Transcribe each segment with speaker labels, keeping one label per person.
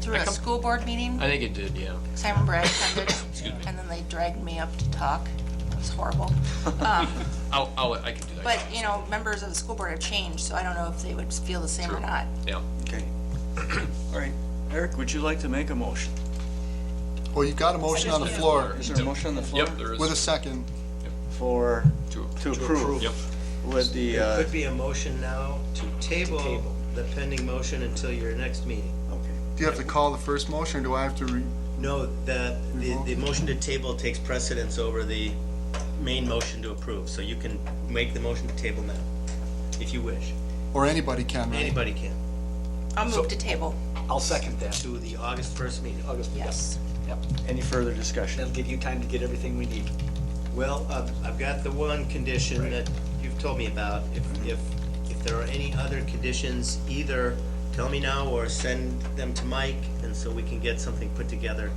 Speaker 1: through
Speaker 2: I
Speaker 1: a
Speaker 2: come-
Speaker 1: school board meeting,
Speaker 2: I think it did, yeah.
Speaker 1: 'cause I remember I attended,
Speaker 2: Excuse me.
Speaker 1: and then they dragged me up to talk. It was horrible. Um,
Speaker 2: I'll, I'll, I can do that.
Speaker 1: But, you know, members of the school board have changed, so I don't know if they would feel the same or
Speaker 2: True.
Speaker 1: not.
Speaker 2: Yeah.
Speaker 3: Okay. All right. Eric, would you like to make a motion?
Speaker 4: Well, you've got a motion on the floor
Speaker 3: Is there a motion on the floor?
Speaker 2: Yep, there
Speaker 4: with a
Speaker 2: is.
Speaker 4: second.
Speaker 3: For,
Speaker 2: To-
Speaker 3: to approve?
Speaker 2: Yep.
Speaker 3: With the,
Speaker 5: There
Speaker 3: uh,
Speaker 5: could be a motion now to table the pending motion until your next meeting.
Speaker 3: okay.
Speaker 4: Do you have to call the first motion, or do I have to re,
Speaker 5: No, the, the, the motion to table takes precedence over the main motion to approve, so you can make the motion to table now, if you wish.
Speaker 4: or anybody can, right?
Speaker 5: Anybody can,
Speaker 1: I'll move to table,
Speaker 6: I'll second that.
Speaker 5: to the August first meeting. Uh,
Speaker 6: August, yep,
Speaker 1: yes.
Speaker 6: yep.
Speaker 3: Any further discussion?
Speaker 6: That'll give you time to get everything we need.
Speaker 5: Well, I've, I've got the one condition that you've told me about. If, if, if there are any other conditions, either tell me now or send them to Mike, and so we can get something put together.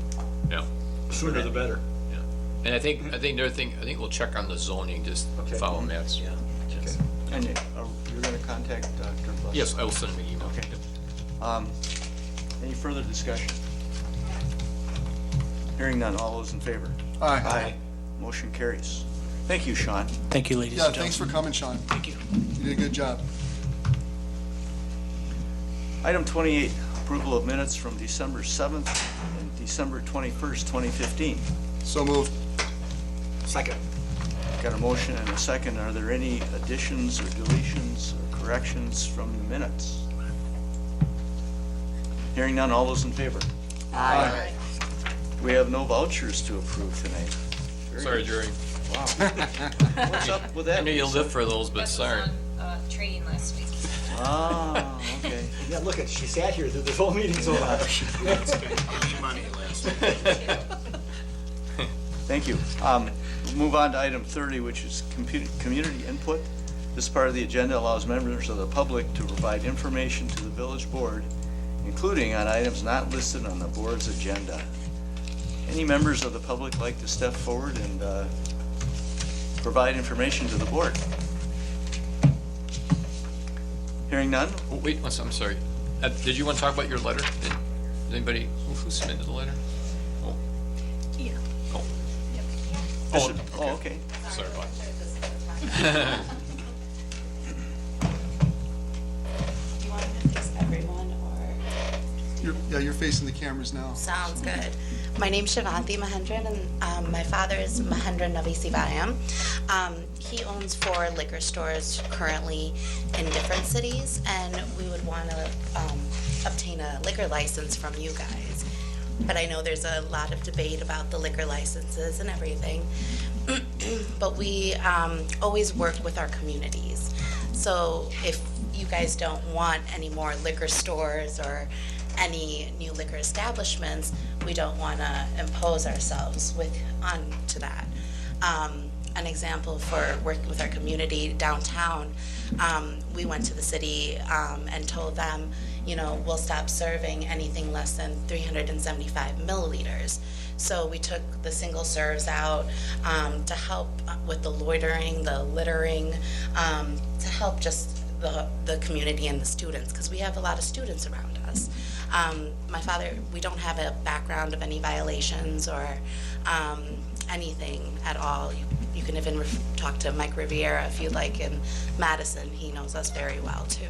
Speaker 2: Yeah.
Speaker 6: Sooner the better.
Speaker 2: Yeah. And I think, I think another thing, I think we'll check on the zoning, just
Speaker 3: Okay.
Speaker 2: follow Matt's.
Speaker 5: Yeah.
Speaker 3: Okay. And you- are- you're going to contact Dr. Buss?
Speaker 2: Yes, I will send him an email.
Speaker 3: Okay.
Speaker 2: Yep.
Speaker 3: Um, Any further discussion? Hearing none, all those in favor?
Speaker 4: Aye.
Speaker 3: Motion carries. Thank you, Sean.
Speaker 7: Thank you, ladies
Speaker 4: Yeah,
Speaker 7: and
Speaker 4: thanks
Speaker 7: gentlemen.
Speaker 4: for coming, Sean.
Speaker 6: Thank you.
Speaker 4: You did a good job.
Speaker 3: Item 28, approval of minutes from December 7th and December 21st, 2015.
Speaker 4: So moved.
Speaker 6: Second.
Speaker 3: Got a motion and a second. Are there any additions or deletions or corrections from the minutes? Hearing none, all those in favor?
Speaker 4: Aye.
Speaker 3: We have no vouchers to approve tonight. Very
Speaker 2: Sorry,
Speaker 3: good.
Speaker 2: Jerry.
Speaker 3: What's up with that?
Speaker 2: I knew you'll live for those, but sorry.
Speaker 8: uh, Training last week.
Speaker 3: Ah, okay.
Speaker 6: Yeah, look at, she sat here through this whole meeting so long.
Speaker 3: Thank you. Um, we'll Move on to item 30, which is compu- community input. This part of the agenda allows members of the public to provide information to the village board, including on items not listed on the board's agenda. Any members of the public like to step forward and uh, provide information to the board? Hearing none?
Speaker 2: Oh, Wait, one sec- I'm sorry. Uh, Did you want to talk about your letter? Did did anybody, who- who submitted the letter? Oh,
Speaker 8: Yeah.
Speaker 2: oh,
Speaker 3: This
Speaker 2: Oh,
Speaker 3: is- Oh, okay.
Speaker 2: sorry about that.
Speaker 9: Do you want me to face everyone or?
Speaker 4: You're, yeah, you're facing the cameras now.
Speaker 9: Sounds good. My name's Shivanti Mahendran and um, my father is Mahendran Navi Sivaram. Um, he owns four liquor stores currently in different cities and we would want to um, obtain a liquor license from you guys. But I know there's a lot of debate about the liquor licenses and everything. but we um, always work with our communities. So if you guys don't want any more liquor stores or any new liquor establishments, we don't want to impose ourselves with onto that. Um, an example for working with our community downtown, um, we went to the city um, and told them, you know, we'll stop serving anything less than 375 milliliters. So we took the single serves out um, to help with the loitering, the littering, um, to help just the, the community and the students, because we have a lot of students around us. Um, my father, we don't have a background of any violations or um, anything at all. You, you can even ref- talk to Mike Riviera if you'd like in Madison. He knows us very well, too.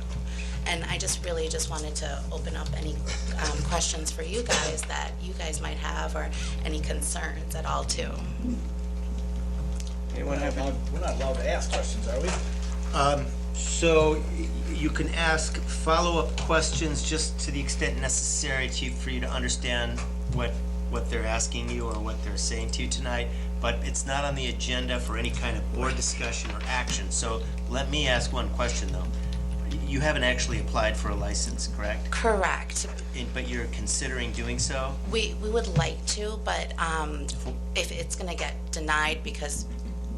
Speaker 9: And I just really just wanted to open up any um, questions for you guys that you guys might have or any concerns at all too.
Speaker 3: Anyone have any?
Speaker 6: We're not allowed to ask questions, are we?
Speaker 5: Um, So y- you can ask follow-up questions just to the extent necessary, Chief, for you to understand what, what they're asking you or what they're saying to you tonight, but it's not on the agenda for any kind of board discussion or action. So let me ask one question, though. Y- You haven't actually applied for a license, correct?
Speaker 9: Correct.
Speaker 5: And- But you're considering doing so?
Speaker 9: We, we would like to, but um, if it's going to get denied because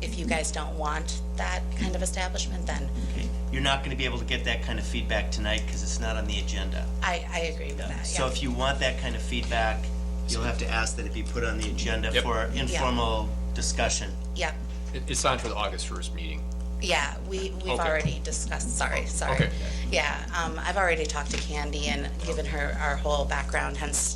Speaker 9: if you guys don't want that kind of establishment, then
Speaker 5: Okay. You're not going to be able to get that kind of feedback tonight because it's not on the agenda.
Speaker 9: I, I agree with that.
Speaker 5: So
Speaker 9: yeah.
Speaker 5: if you want that kind of feedback, you'll have to ask that it be put on the agenda
Speaker 2: Yep.
Speaker 5: for informal discussion.
Speaker 9: Yep.
Speaker 2: It- It's on for the August 1st meeting.
Speaker 9: Yeah, we, we've
Speaker 2: Okay.
Speaker 9: already discussed, sorry, sorry.
Speaker 2: Okay.
Speaker 9: Yeah, um, I've already talked to Candy and given her our whole background, hence